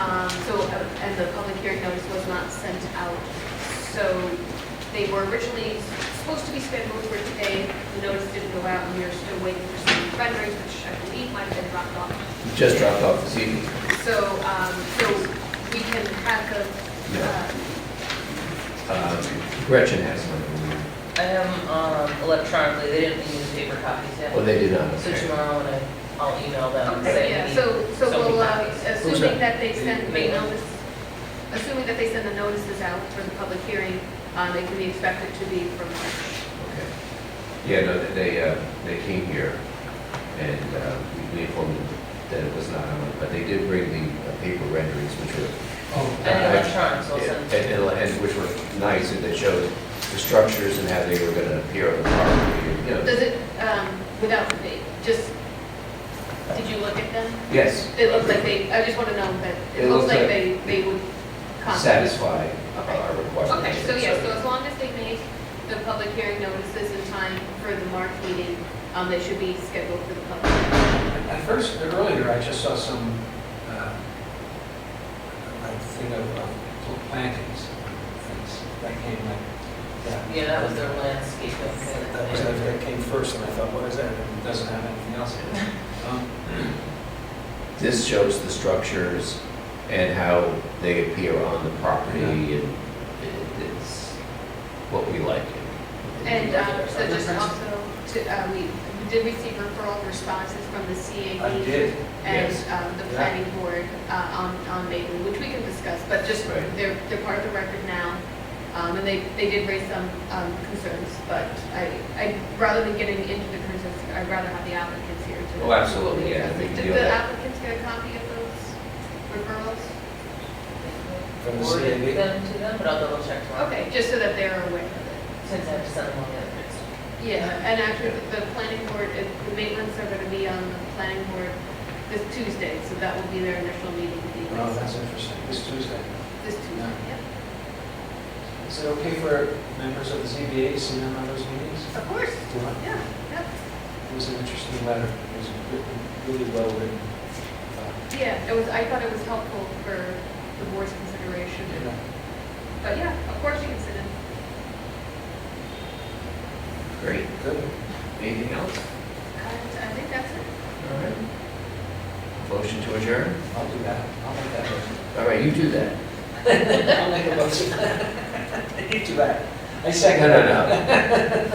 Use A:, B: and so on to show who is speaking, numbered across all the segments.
A: Um, So, uh, and the public hearing notice was not sent out. So they were originally supposed to be scheduled for today. The notice didn't go out, and we are still waiting for some renderings, which I believe might have been dropped off.
B: Just dropped off this evening.
A: So, um, so we can have the, uh,
B: Um, Gretchen has one.
C: I have um, electronically, they didn't use paper copies yet.
B: Oh, they did not,
C: So
B: okay.
C: tomorrow, when I- I'll email them and
A: Okay,
C: say,
A: yeah,
C: we need
A: uh, so, so
C: so many
A: we'll, uh,
C: copies.
B: Who's
A: assuming
B: that?
A: that they send the
C: Mail.
A: notice, assuming that they send the notices out for the public hearing, uh, they can be expected to be from March.
B: Okay. Yeah, no, they, uh, they came here and uh, we- we informed them that it was not on, but they did bring the uh, paper renderings, which were.
D: Oh,
C: And electronic, so I'll
B: Yeah,
C: send.
B: And, and- and which were nice, and they showed the structures and how they were going to appear on the property, you know.
A: Does it, um, without the date, just, did you look at them?
B: Yes.
A: It looks like they, I just want to know that, it
B: It
A: looks
B: looks
A: like
B: like-
A: they, they would contact.
B: Satisfy
A: Okay.
B: our requirements.
A: Okay, so yeah, so as long as they make the public hearing notices in time for the March meeting, um, they should be scheduled for the public. hearing.
D: At first, earlier, I just saw some, uh, like, thing of of plantings, things that came like.
C: Yeah, that was their landscape.
D: That was, that came first, and I thought, what is that? And it doesn't have anything else in it. Um,
B: This shows the structures and how they appear on the property, and
D: Yeah.
B: it- it's what we like.
A: And um, so just also, to, uh, we we did receive referral responses from the CAB.
D: I did,
A: And
B: yes.
A: um, the
D: Yeah.
A: planning board uh, on, on Maple, which we can discuss, but just,
B: Right.
A: they're, they're part of the record now. Um, And they, they did raise some um, concerns, but I, I, rather than getting into the concerns, I'd rather have the applicants here to.
B: Oh, absolutely, yeah,
A: address
B: we
A: it.
B: can
A: Did
B: deal
A: the
B: with-
A: applicants get a copy of those referrals?
D: From the
C: Forwarded
D: CAB?
C: them to them, but I'll double check tomorrow.
A: Okay, just so that they're aware of it.
C: Since I have to send them all the other days.
A: Yeah, and actually, the the planning board, uh, the Maitlands are going to be on the planning board this Tuesday, so that will be their initial meeting
D: Oh,
A: anyway,
D: that's interesting, this Tuesday.
A: this Tuesday. yeah.
D: Is it okay for members of the ZBA to see them on those meetings?
A: Of course,
D: Yeah.
A: yeah, yeah,
D: It was an interesting letter, it was written- really well written. Uh,
A: yeah, it was, I thought it was helpful for the board's consideration,
D: you know,
A: but yeah, of course you can sit in.
B: Great.
D: Good.
B: Anything else?
A: And I think that's it.
B: All right. Motion to adjourn?
D: I'll do that, I'll make that motion.
B: All right, you do that.
D: I'll make a motion. I need to back. I
B: No,
D: second
B: no,
D: it.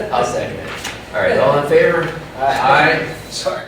B: no. I'll second it. All right, all in favor?
D: Aye. Sorry.